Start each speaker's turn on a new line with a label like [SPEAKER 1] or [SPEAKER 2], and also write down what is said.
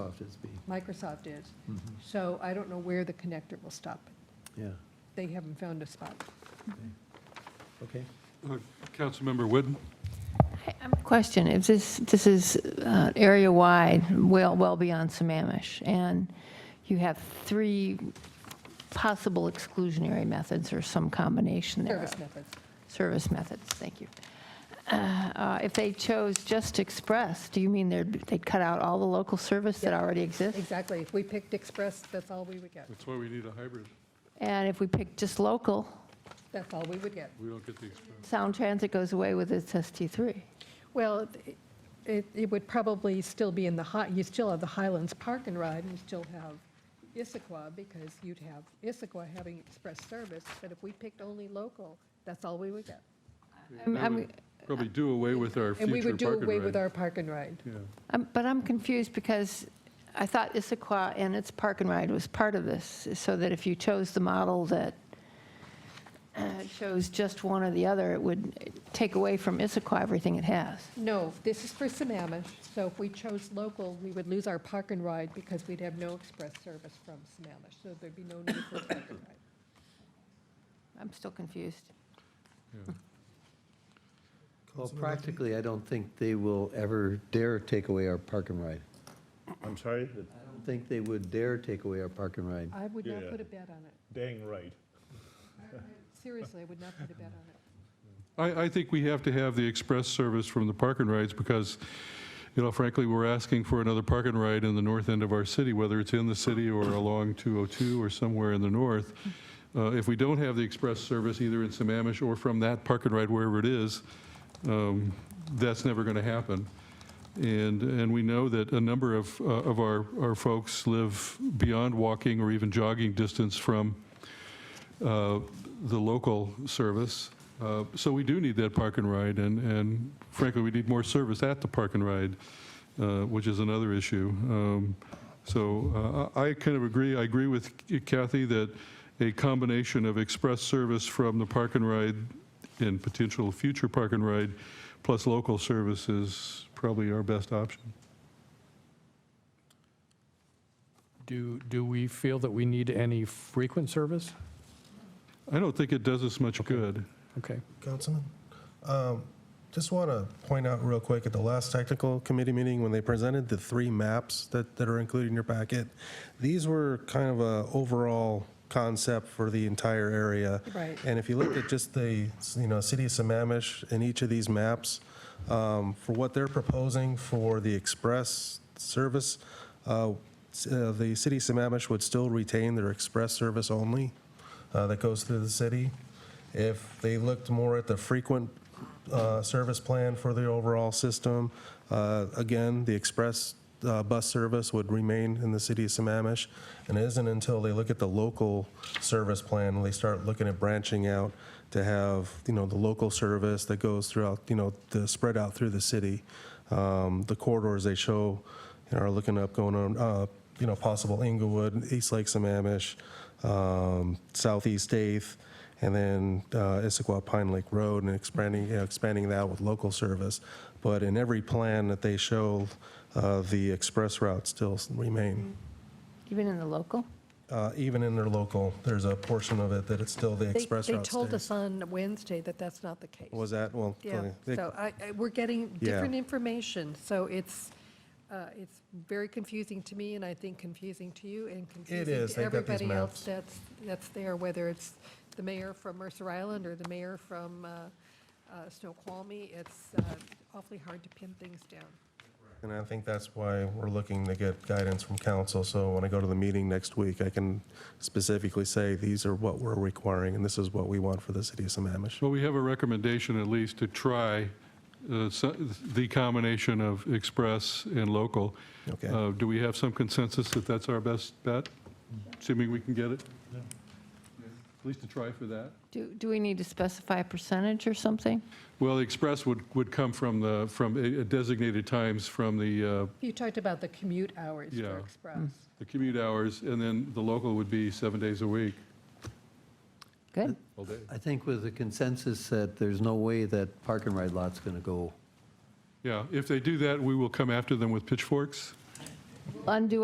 [SPEAKER 1] Microsoft is being,
[SPEAKER 2] Microsoft is.
[SPEAKER 3] Mm-hmm.
[SPEAKER 1] Mhm.
[SPEAKER 2] So I don't know where the connector will stop.
[SPEAKER 1] yeah,
[SPEAKER 2] They haven't found a spot.
[SPEAKER 1] okay.
[SPEAKER 3] Uh, Councilmember Whitten?
[SPEAKER 4] I have a Question, if this, this is uh, area-wide, well, well beyond Sammamish, and you have three possible exclusionary methods or some combination thereof.
[SPEAKER 2] Service methods.
[SPEAKER 4] Service methods, thank you. Uh, uh, If they chose just Express, do you mean they'd, they'd cut out all the local service that
[SPEAKER 2] Yep.
[SPEAKER 4] already exists?
[SPEAKER 2] Exactly. If we picked Express, that's all we would get.
[SPEAKER 3] That's why we need a hybrid.
[SPEAKER 4] And if we pick just local,
[SPEAKER 2] That's all we would get.
[SPEAKER 3] We don't get the expense.
[SPEAKER 4] Sound Transit goes away with its ST3.
[SPEAKER 2] Well, it- it, it would probably still be in the, Hi- you still have the Highlands Park and Ride, and you still have Issaquah, because you'd have Issaquah having express service, but if we picked only local, that's all we would get.
[SPEAKER 4] I'm-
[SPEAKER 3] That
[SPEAKER 4] I'm-
[SPEAKER 3] would Probably do away with our
[SPEAKER 2] And we
[SPEAKER 3] future
[SPEAKER 2] would do
[SPEAKER 3] park and
[SPEAKER 2] away with
[SPEAKER 3] ride.
[SPEAKER 2] our park and ride.
[SPEAKER 3] Yeah,
[SPEAKER 4] Um, But I'm confused because I thought Issaquah and its park and ride was part of this, so that if you chose the model that uh, shows just one or the other, it would take away from Issaquah everything it has.
[SPEAKER 2] No, this is for Sammamish, so if we chose local, we would lose our park and ride because we'd have no express service from Sammamish, so there'd be no need for park and ride.
[SPEAKER 4] I'm still confused.
[SPEAKER 3] yeah.
[SPEAKER 1] Well, practically, I don't think they will ever dare take away our park and ride.
[SPEAKER 5] I'm sorry? The
[SPEAKER 1] I don't think they would dare take away our park and ride.
[SPEAKER 2] I would not
[SPEAKER 5] Yeah.
[SPEAKER 2] put a bet on it.
[SPEAKER 5] Dang right.
[SPEAKER 2] Seriously, I would not put a bet on it.
[SPEAKER 3] I, I think we have to have the express service from the park and rides because, you know, frankly, we're asking for another park and ride in the north end of our city, whether it's in the city or along 202 or somewhere in the north. Uh, If we don't have the express service either in Sammamish or from that park and ride, wherever it is, um, that's never going to happen. And, and we know that a number of, uh, of our, our folks live beyond walking or even jogging distance from uh, the local service. Uh, So we do need that park and ride, and and frankly, we need more service at the park and ride, uh, which is another issue. Um, So uh, I I kind of agree, I agree with Kathy that a combination of express service from the park and ride and potential future park and ride, plus local service is probably our best option.
[SPEAKER 6] Do, do we feel that we need any frequent service?
[SPEAKER 3] I don't think it does us much good.
[SPEAKER 6] Okay.
[SPEAKER 7] Councilman, um, just want to point out real quick, at the last technical committee meeting, when they presented the three maps that, that are included in your packet, these were kind of a overall concept for the entire area.
[SPEAKER 2] Right.
[SPEAKER 7] And if you look at just the, you know, city of Sammamish in each of these maps, um, for what they're proposing for the express service, uh, s- uh, the city of Sammamish would still retain their express service only uh, that goes through the city. If they looked more at the frequent uh, service plan for the overall system, uh, again, the express uh, bus service would remain in the city of Sammamish. And it isn't until they look at the local service plan, when they start looking at branching out to have, you know, the local service that goes throughout, you know, the spread out through the city. Um, The corridors they show, you know, are looking up, going on, uh, you know, possible Inglewood, East Lake Sammamish, um, Southeast Eighth, and then uh, Issaquah Pine Lake Road, and expanding, you know, expanding that with local service. But in every plan that they show, uh, the express routes still remain.
[SPEAKER 4] Even in the local?
[SPEAKER 2] Mm-hmm.
[SPEAKER 7] Uh, Even in their local, there's a portion of it that it's still the
[SPEAKER 2] They-
[SPEAKER 7] express
[SPEAKER 2] They
[SPEAKER 7] route
[SPEAKER 2] told
[SPEAKER 7] stays.
[SPEAKER 2] us on Wednesday that that's not the case.
[SPEAKER 7] Was that, well,
[SPEAKER 2] Yeah,
[SPEAKER 7] they-
[SPEAKER 2] so I, I- we're getting
[SPEAKER 7] Yeah.
[SPEAKER 2] different information, so it's, uh, it's very confusing to me, and I think confusing to you, and confusing
[SPEAKER 7] is.
[SPEAKER 2] to
[SPEAKER 7] They've got these
[SPEAKER 2] everybody else
[SPEAKER 7] maps.
[SPEAKER 2] that's, that's there, whether it's the mayor from Mercer Island or the mayor from uh, uh, Snoqualmie, it's uh, awfully hard to pin things down.
[SPEAKER 7] And I think that's why we're looking to get guidance from council, so when I go to the meeting next week, I can specifically say, these are what we're requiring, and this is what we want for the city of Sammamish.
[SPEAKER 3] Well, we have a recommendation at least to try uh, so- the combination of express and local.
[SPEAKER 7] Okay.
[SPEAKER 3] Uh, Do we have some consensus that that's our best bet, assuming we can get it? At least to try for that.
[SPEAKER 4] Do, do we need to specify a percentage or something?
[SPEAKER 3] Well, the express would, would come from the, from a- a designated times from the, uh,
[SPEAKER 2] You talked about the commute hours for
[SPEAKER 3] Yeah.
[SPEAKER 2] Express.
[SPEAKER 3] the commute hours, and then the local would be seven days a week,
[SPEAKER 4] Good.
[SPEAKER 3] all day.
[SPEAKER 1] I think with the consensus that there's no way that park and ride lot's going to go
[SPEAKER 3] Yeah, if they do that, we will come after them with pitchforks.
[SPEAKER 4] Undo